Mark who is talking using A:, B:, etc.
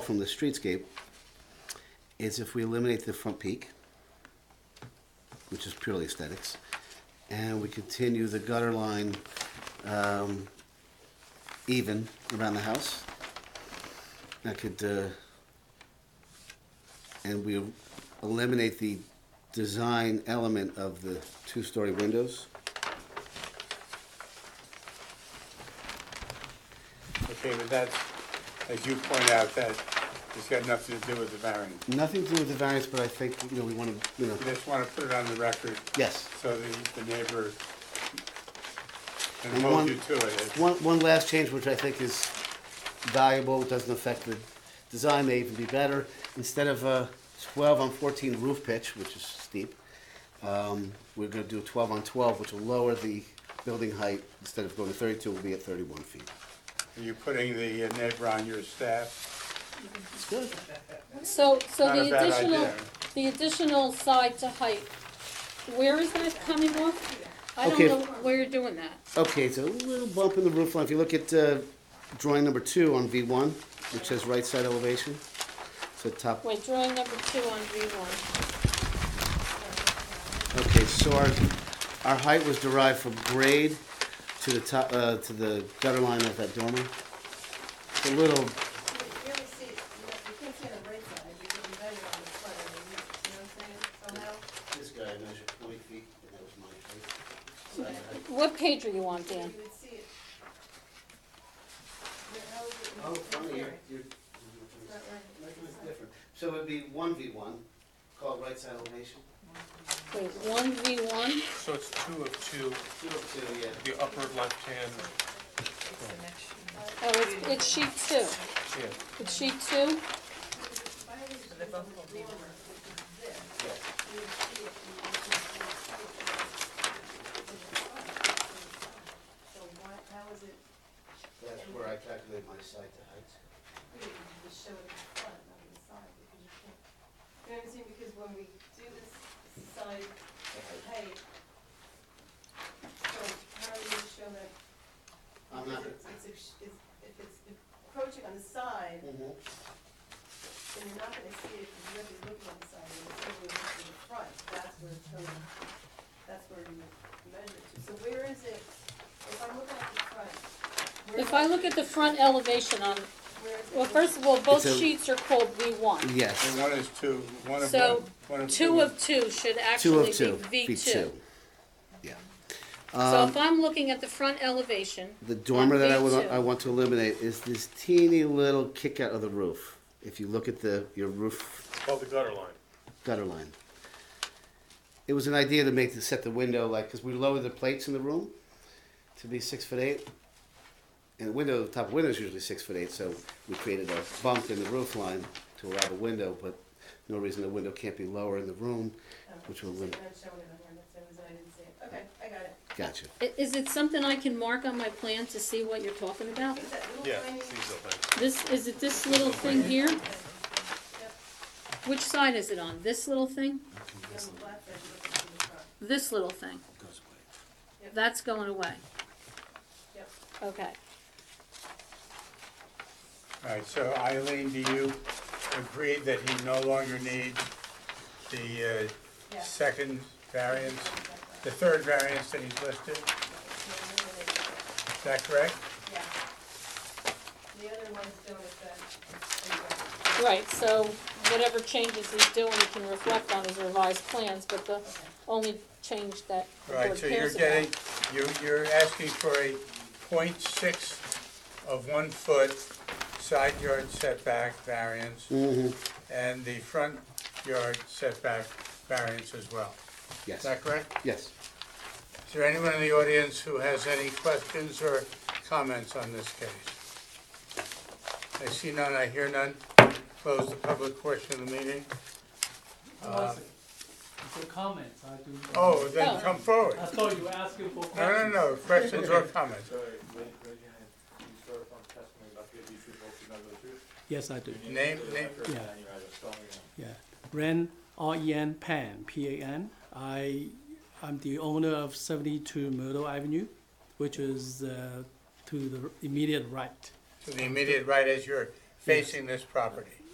A: from the streetscape is if we eliminate the front peak, which is purely aesthetics, and we continue the gutter line um, even around the house. That could, uh, and we eliminate the design element of the two-story windows.
B: Okay, but that's, as you point out, that it's got nothing to do with the variance.
A: Nothing to do with the variance, but I think, you know, we want to, you know,
B: You just want to put it on the record
A: yes.
B: so the, the neighbor can
A: And
B: hold
A: one-
B: you to it.
A: One, one last change, which I think is valuable, doesn't affect the design, may even be better. Instead of a 12 on 14 roof pitch, which is steep, um, we're going to do a 12 on 12, which will lower the building height. Instead of going to 32, we'll be at 31 feet.
B: Are you putting the uh, neighbor on your staff?
A: It's good.
C: So, so
B: Not
C: the
B: a bad
C: additional,
B: idea.
C: the additional side to height, where is that coming off? I don't
A: Okay.
C: know where you're doing that.
A: Okay, it's a little bump in the roof line. If you look at uh, drawing number two on V1, which says right side elevation, so top.
C: Wait, drawing number two on V one.
A: Okay, so our, our height was derived from grade to the top, uh, to the gutter line of that dormer. It's a little,
D: You really see, it. you know, you can't see it on the right side, you can measure it on the front, end, you know what I'm saying, somehow?
A: this guy measured twenty feet, and that was my height.
C: What page are you on, Dan?
D: You would see it. Your nose would-
A: Oh, funny, you're,
D: It's
A: you're,
D: not right.
A: measurement's different. So it'd be one V one, called right side elevation,
C: Wait, one V one?
E: So it's two of two,
A: two of two, yeah.
E: the upper left-hand,
C: Oh, it's, it's sheet two.
E: yeah,
C: It's sheet two?
D: So why, how is it,
A: That's where I calculate my side to height.
D: you can just show it in the front, not in the side, because you can't. You know what I'm saying, because when we do this side, height, so how are you gonna show that?
A: I'm not.
D: Because it's- it's- it's- If it's encroaching on the side,
A: Mhm.
D: and you're not gonna see it, because you're gonna be looking on the side, and it's only looking to the front, that's where it's going, that's where you measure it to. So where is it, if I'm looking at the front? where
C: If
D: is
C: I
D: it-
C: look at the front elevation on,
D: Where is it?
C: well, first of all, both
A: It's a-
C: sheets are called V one.
A: Yes,
B: And one is two, one of
C: So,
B: one, one of two.
C: Two of two should
A: two
C: actually
A: of two,
C: be
A: V
C: V
A: two.
C: two.
A: Yeah.
C: So
A: Um,
C: if I'm looking at the front elevation,
A: The dormer that I
C: On
A: would,
C: V2.
A: I want to eliminate is this teeny little kick out of the roof. If you look at the, your roof
E: called Oh, the gutter line.
A: gutter line. It was an idea to make, to set the window like, because we lowered the plates in the room to be six foot eight. And the window, the top window is usually six foot eight, so we created a bump in the roof line to allow the window, but no reason the window can't be lower in the room,
D: Oh,
A: which will
D: so
A: limit,
D: you're not showing it on here, that's the reason I didn't see it. Okay, I got it.
A: gotcha.
C: I- Is it something I can mark on my plan to see what you're talking about?
D: Is that little
E: Yeah,
D: tiny-
E: these are like-
C: This, is it this little thing here?
D: Yep,
C: Which side is it on? This little thing?
D: you're on the left, that's looking to the front.
C: This little thing?
A: Goes away.
C: That's going away.
D: Yep.
C: Okay.
B: All right, so Eileen, do you agree that he no longer needs the uh,
D: Yeah.
B: second variance, the third variance that he's listed? Is that correct?
D: Yeah. The other ones don't affect.
C: Right, so whatever changes he's doing, he can reflect on his revised plans, but the only change that the
B: Right,
C: board
B: so you're
C: cares about.
B: getting, you're, you're asking for a point six of one foot side yard setback variance and the front yard setback variance as well. Is
A: Yes,
B: that correct?
A: yes.
B: Is there anyone in the audience who has any questions or comments on this case? I see none, I hear none. Close the public portion of the meeting. Uh,
F: For comments, I do.
B: Oh, then come forward.
F: I thought you were asking for
B: No, no,
F: questions.
B: no, questions or comments.
G: Sorry, raise, raise your hand. Do you swear upon the testimony about to give these people to know the truth?
F: Yes, I do,
G: Your
B: Name-
G: for the
B: name-
G: record,
F: Yeah.
G: And your address, spell it out.
F: yeah. Ren, R-E-N, Pan, P-A-N. I, I'm the owner of seventy-two Myrtle Avenue, which is, uh, to the immediate right.
B: To the immediate right as you're facing this property.